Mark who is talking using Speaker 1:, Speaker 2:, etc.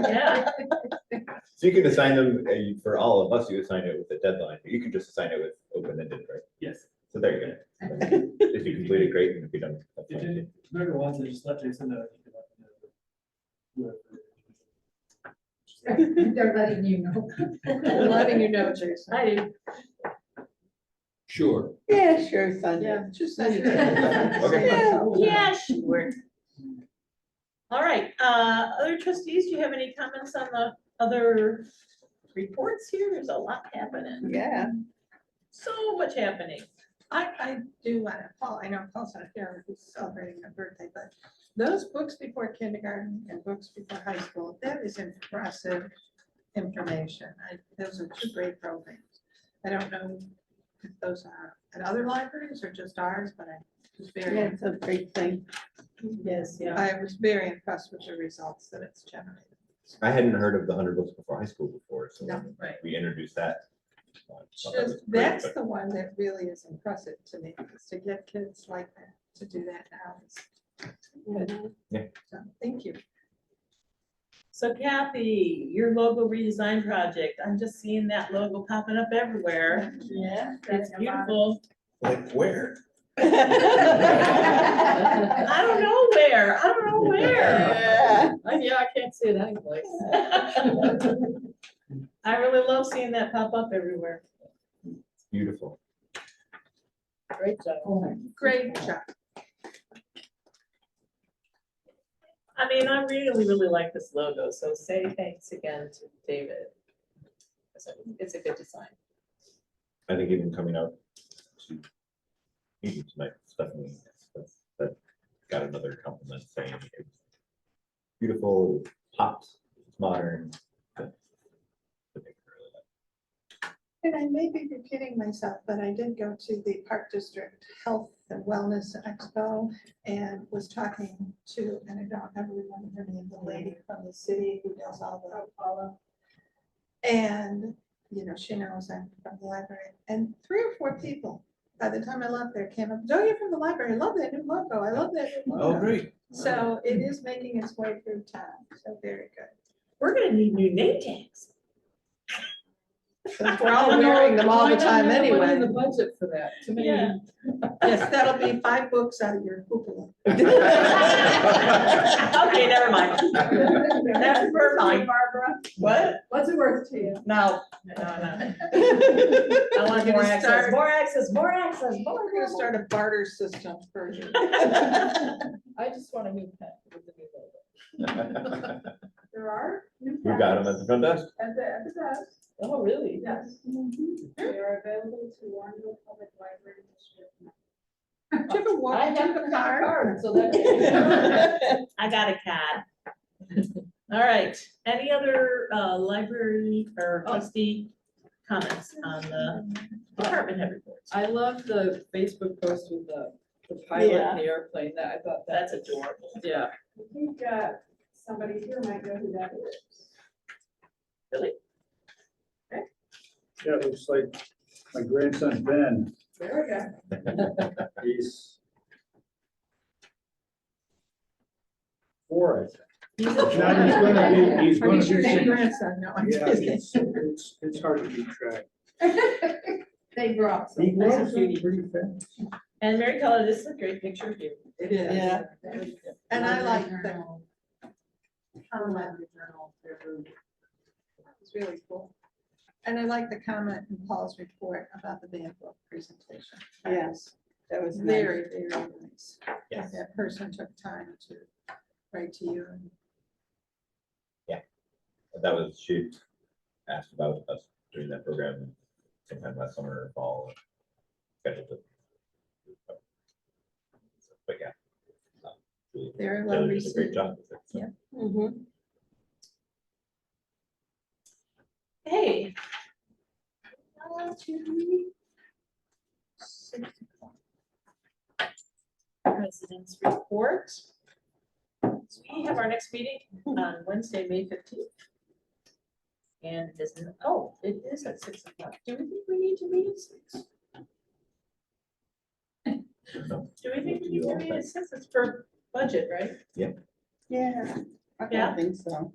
Speaker 1: Yeah.
Speaker 2: So you could assign them, uh, for all of us, you assign it with a deadline, but you could just assign it with open-ended, right?
Speaker 3: Yes,
Speaker 2: So there you go. If you complete it, great, and if you don't. that's
Speaker 3: if
Speaker 2: fine.
Speaker 3: you, whoever wants it, just let Jason know. if you want to do it. Whoever.
Speaker 1: They're letting you know.
Speaker 4: Letting you know, Jason.
Speaker 1: I do.
Speaker 5: Sure.
Speaker 4: Yeah, sure, son.
Speaker 1: Yeah.
Speaker 4: Just.
Speaker 2: Okay.
Speaker 1: Yeah, sure. All right, uh, other trustees, do you have any comments on the other reports here? There's a lot happening,
Speaker 4: Yeah.
Speaker 1: so much happening.
Speaker 4: I, I do want to, Paul, I know Paul's not here, he's celebrating a birthday, but those books before kindergarten and books before high school, that is impressive information. I, those are two great programs. I don't know if those are at other libraries or just ours, but I was very. It's a great thing.
Speaker 1: Yes, yeah.
Speaker 4: I was very impressed with the results that it's generated.
Speaker 2: I hadn't heard of the hundred books before high school before, so
Speaker 4: No.
Speaker 2: when
Speaker 1: Right.
Speaker 2: we introduced that. uh,
Speaker 4: It's
Speaker 2: thought that
Speaker 4: Just,
Speaker 2: was great,
Speaker 4: that's
Speaker 2: but
Speaker 4: the one that really is impressive to me, is to get kids like that, to do that now. is good.
Speaker 2: Yeah.
Speaker 4: So, Thank you.
Speaker 1: So Kathy, your logo redesign project, I'm just seeing that logo popping up everywhere.
Speaker 4: Yeah.
Speaker 1: That's beautiful.
Speaker 2: Like where?
Speaker 1: I don't know where, I don't know where.
Speaker 4: Yeah.
Speaker 6: Yeah, I can't see it anyways.
Speaker 1: I really love seeing that pop up everywhere.
Speaker 2: Beautiful.
Speaker 6: Great job.
Speaker 4: Great job.
Speaker 1: I mean, I really, really like this logo, so say thanks again to David. So, It's a good design.
Speaker 2: I think even coming out to meeting tonight, Stephanie, that, that got another compliment saying it's beautiful, pops, it's modern. that- that they really like.
Speaker 4: And I may be repeating myself, but I did go to the Park District Health and Wellness Expo and was talking to, and I don't ever remember her name, the lady from the city who does all the. all of- And, you know, she knows I'm from the library, and three or four people, by the time I left there, came up, oh, you're from the library, I love that new logo, I love that new
Speaker 2: Oh,
Speaker 4: logo.
Speaker 5: great.
Speaker 4: So it is making its way through town, so very good.
Speaker 1: We're gonna need new name tags.
Speaker 4: Since we're all wearing them all the time anyway.
Speaker 6: Went in the budget for that, to me.
Speaker 1: Yeah.
Speaker 4: Yes, that'll be five books out of your hoopla.
Speaker 1: Okay, never mind. That's for mine.
Speaker 4: Barbara.
Speaker 1: What?
Speaker 6: What's it worth to you?
Speaker 1: No, no, no.
Speaker 4: We're
Speaker 1: I want
Speaker 4: We're
Speaker 1: more
Speaker 4: gonna
Speaker 1: access,
Speaker 4: start-
Speaker 1: more access, more access,
Speaker 4: gonna
Speaker 1: more.
Speaker 4: start a barter system for you.
Speaker 6: I just want a new pen with the new logo.
Speaker 7: There are. new
Speaker 2: We got them at
Speaker 7: packs
Speaker 2: the front desk.
Speaker 7: At the, at the desk,
Speaker 6: Oh, really?
Speaker 7: yes.
Speaker 4: Mm-hmm.
Speaker 7: They are available to Warrenville Public Library District.
Speaker 4: Do you have a wa-
Speaker 6: I
Speaker 4: do you
Speaker 6: have a
Speaker 4: card?
Speaker 6: card, so that's.
Speaker 1: I got a cat. All right, any other uh, library or trustee comments on the department head reports?
Speaker 6: I love the Facebook post with the, the pilot and the airplane, that, I thought that.
Speaker 1: That's adorable.
Speaker 6: Yeah,
Speaker 7: I think, uh, somebody here might know who that is.
Speaker 8: Yeah, it looks like my grandson Ben,
Speaker 7: There we go.
Speaker 8: he's four, I think. Now he's gonna be, he's
Speaker 4: Are you
Speaker 8: gonna
Speaker 4: sure your
Speaker 8: be.
Speaker 4: grandson? No, I'm
Speaker 8: Yeah,
Speaker 4: kidding.
Speaker 8: it's, it's, it's hard to keep track.
Speaker 7: They grew up.
Speaker 8: He
Speaker 1: That's a
Speaker 8: grows up
Speaker 1: cutie.
Speaker 8: pretty fast.
Speaker 1: And Mary Keller, this is a great picture of you.
Speaker 4: It is.
Speaker 6: Yeah.
Speaker 4: And I like that. It's really cool. And I like the comment in Paul's report about the band book presentation. Yes, that was very, very nice.
Speaker 2: Yes.
Speaker 4: That That person took time to write to you and
Speaker 2: That was, she asked about us doing that program sometime last summer or fall. scheduled it. But yeah. um, Julie-
Speaker 4: very well
Speaker 2: Taylor did a great
Speaker 4: received.
Speaker 2: job with it. so.
Speaker 4: Yeah.
Speaker 1: Hey. Uh, to President's report. So We have our next meeting on Wednesday, May fifteenth. And it isn't, oh, it is at six o'clock. Do we think we need to meet at six?
Speaker 2: No.
Speaker 1: Do we think we need to meet at six? It's for budget, right?
Speaker 4: Yeah.
Speaker 1: Yeah.
Speaker 4: think so.